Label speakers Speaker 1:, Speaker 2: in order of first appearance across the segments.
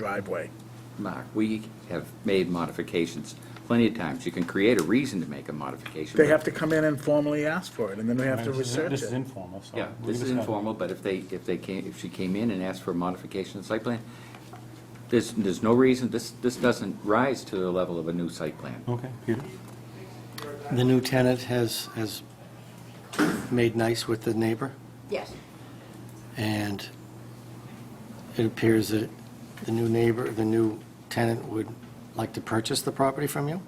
Speaker 1: driveway.
Speaker 2: Mark, we have made modifications plenty of times. You can create a reason to make a modification.
Speaker 1: They
Speaker 2: but-
Speaker 1: have to come in and formally ask for it, and then we have to
Speaker 3: This is-
Speaker 1: research
Speaker 3: This is
Speaker 1: it.
Speaker 3: informal, so.
Speaker 2: Yeah,
Speaker 3: we
Speaker 2: this is
Speaker 3: just have-
Speaker 2: informal, but if they, if they came, if she came in and asked for a modification of the site plan, there's, there's no reason, this, this doesn't rise to the level of a new site plan.
Speaker 3: Okay, Peter?
Speaker 4: The new tenant has, has made nice with the neighbor,
Speaker 5: Yes,
Speaker 4: and it appears that the new neighbor, the new tenant would like to purchase the property from you,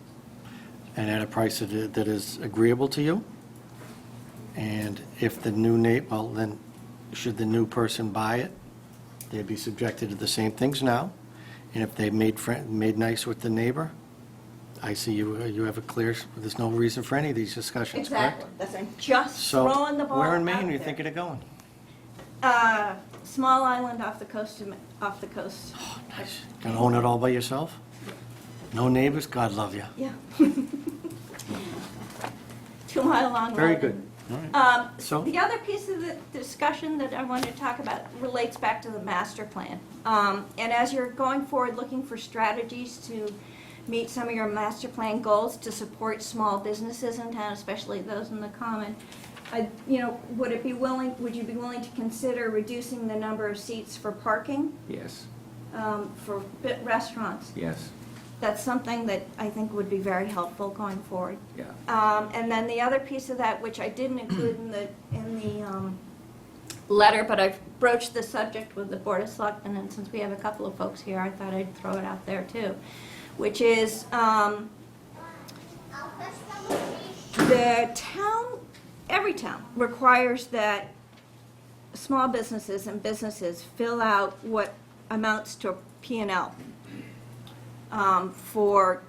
Speaker 4: and at a price that i- that is agreeable to you. And if the new neigh, well, then, should the new person buy it, they'd be subjected to the same things now. And if they made, fri- made nice with the neighbor, I see you, you have a clear, there's no reason for any of these discussions, correct?
Speaker 5: exactly. That's, I'm just
Speaker 4: So,
Speaker 5: throwing the ball out
Speaker 4: where
Speaker 5: there.
Speaker 4: in Maine are you thinking of going?
Speaker 5: Uh, small island off the coast of, Ma- off the coast.
Speaker 4: Oh, Nice. Gonna own it all by yourself? No neighbors? God love you.
Speaker 5: Yeah. Two mile long.
Speaker 4: Very
Speaker 5: island.
Speaker 4: good.
Speaker 5: Um,
Speaker 4: So-
Speaker 5: The other piece of the discussion that I wanted to talk about relates back to the master plan. Um, And as you're going forward, looking for strategies to meet some of your master plan goals to support small businesses in town, especially those in the common, I- you know, would it be willing, would you be willing to consider reducing the number of seats for parking
Speaker 2: Yes,
Speaker 5: um, for bit- restaurants?
Speaker 2: yes,
Speaker 5: That's something that I think would be very helpful going forward.
Speaker 2: yeah.
Speaker 5: Um, And then the other piece of that, which I didn't include in the, in the um, letter, but I've broached the subject with the Board of Selectmen, and since we have a couple of folks here, I thought I'd throw it out there too, which is um, the town, every town requires that small businesses and businesses fill out what amounts to a P and L um, for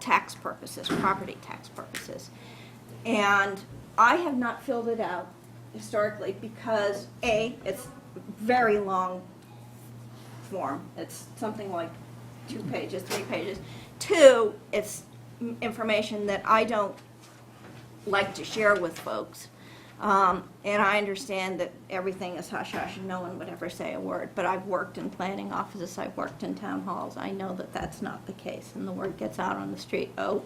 Speaker 5: tax purposes, property tax purposes. And I have not filled it out historically because, A, it's very long form. It's something like two pages, three pages. Two, it's m- information that I don't like to share with folks. Um, And I understand that everything is hush-hush and no one would ever say a word, but I've worked in planning offices, I've worked in town halls. I know that that's not the case, and the word gets out on the street, oh,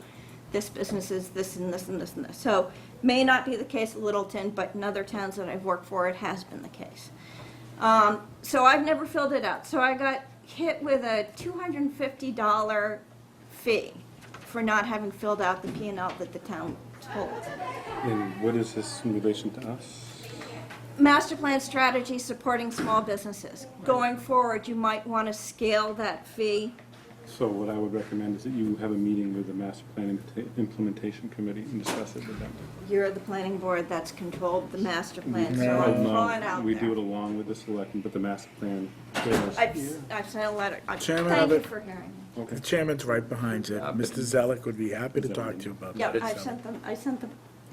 Speaker 5: this business is this and this and this and this. So may not be the case in Littleton, but in other towns that I've worked for, it has been the case. Um, So I've never filled it out. So I got hit with a $250 fee for not having filled out the P and L that the town holds.
Speaker 6: And what is this in relation to us?
Speaker 5: Master plan strategy supporting small businesses. Going forward, you might want to scale that fee.
Speaker 6: So what I would recommend is that you have a meeting with the master plan Implementa- implementation committee and discuss it with them.
Speaker 5: You're the planning board that's controlled the master plan, so
Speaker 6: Oh,
Speaker 4: um,
Speaker 5: I'm
Speaker 6: no,
Speaker 5: throwing out
Speaker 6: We do it
Speaker 5: there.
Speaker 6: along with the selectmen, but the master plan. goes-
Speaker 5: I've, I've sent a letter. I-
Speaker 1: Chairman
Speaker 5: Thank
Speaker 1: of
Speaker 5: you
Speaker 1: it-
Speaker 5: for hearing. me.
Speaker 6: Okay.
Speaker 1: The chairman's right behind you.
Speaker 2: Uh,
Speaker 1: Mr. Zelik would be happy to talk to you about that.
Speaker 5: Yep,
Speaker 2: it's,
Speaker 5: I
Speaker 2: um,
Speaker 5: sent them, I sent them,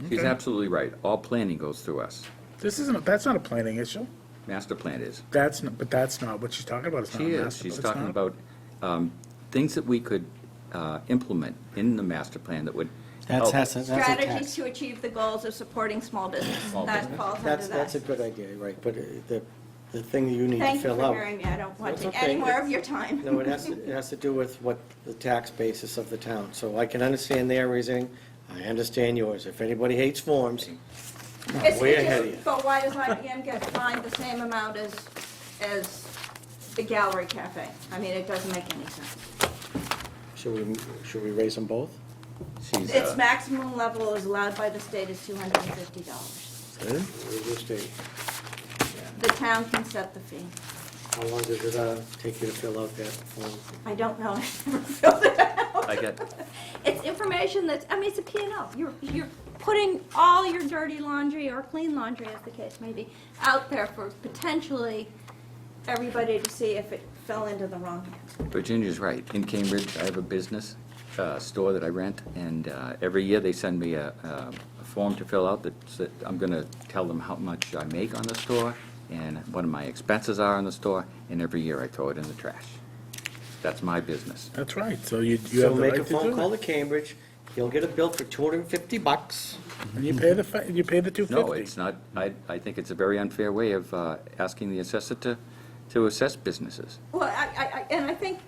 Speaker 2: She's
Speaker 1: Okay.
Speaker 2: absolutely right. All planning goes through us.
Speaker 1: This isn't, that's not a planning issue.
Speaker 2: Master plan is.
Speaker 1: That's, not- but that's not what she's talking about. It's not a
Speaker 2: She is,
Speaker 1: Uh, master-
Speaker 2: she's
Speaker 1: it's
Speaker 2: talking
Speaker 1: not-
Speaker 2: about um, things that we could uh, implement in the master plan that would
Speaker 4: That's,
Speaker 2: help.
Speaker 4: that's, a- that's a
Speaker 5: strategies
Speaker 4: tax.
Speaker 5: to achieve the goals of supporting small business.
Speaker 2: Small
Speaker 5: That
Speaker 2: business.
Speaker 5: falls under
Speaker 4: That's, that's a
Speaker 5: that.
Speaker 4: good idea, right, but uh, the, the thing you need to
Speaker 5: Thank you
Speaker 4: fill
Speaker 5: for
Speaker 4: out.
Speaker 5: hearing me. I don't want
Speaker 4: It's
Speaker 5: to-
Speaker 4: okay.
Speaker 5: any more of
Speaker 4: It's-
Speaker 5: your time.
Speaker 4: No, it has, to it has to do with what the tax basis of the town, so I can understand their reasoning, I understand yours. If anybody hates forms,
Speaker 5: It's-
Speaker 4: Way
Speaker 5: it
Speaker 4: ahead
Speaker 5: just-
Speaker 4: of you.
Speaker 5: But why does IBM get fined the same amount as, as the Gallery Cafe? I mean, it doesn't make any sense.
Speaker 4: should we, should we raise them both?
Speaker 2: She's,
Speaker 5: Its
Speaker 2: uh,
Speaker 5: maximum level is allowed by the state is two hundred and fifty dollars. The town can set the fee.
Speaker 4: How long does it uh, take you to fill out that form?
Speaker 5: I don't know, I've never filled it out.
Speaker 2: I get,
Speaker 5: It's information that's, I mean, it's a P and L. You're, you're putting all your dirty laundry or clean laundry, as the case may be, out there for potentially everybody to see if it fell into the wrong hands.
Speaker 2: Virginia's right. In Cambridge, I have a business uh, store that I rent, and uh, every year they send me a um, a form to fill out that's- that I'm going to tell them how much I make on the store and what my expenses are on the store, and every year I throw it in the trash. That's my business.
Speaker 1: That's right. So you, you
Speaker 4: So
Speaker 1: have the right
Speaker 4: make
Speaker 1: to
Speaker 4: a phone
Speaker 1: do
Speaker 4: call
Speaker 1: it.
Speaker 4: to Cambridge, he'll get a bill for 250 bucks.
Speaker 1: And you pay the, fi- you pay the two fifty.
Speaker 2: No, it's not, I, I think it's a very unfair way of uh, asking the assessor to, to assess businesses.
Speaker 5: Well, I, I, I- and I think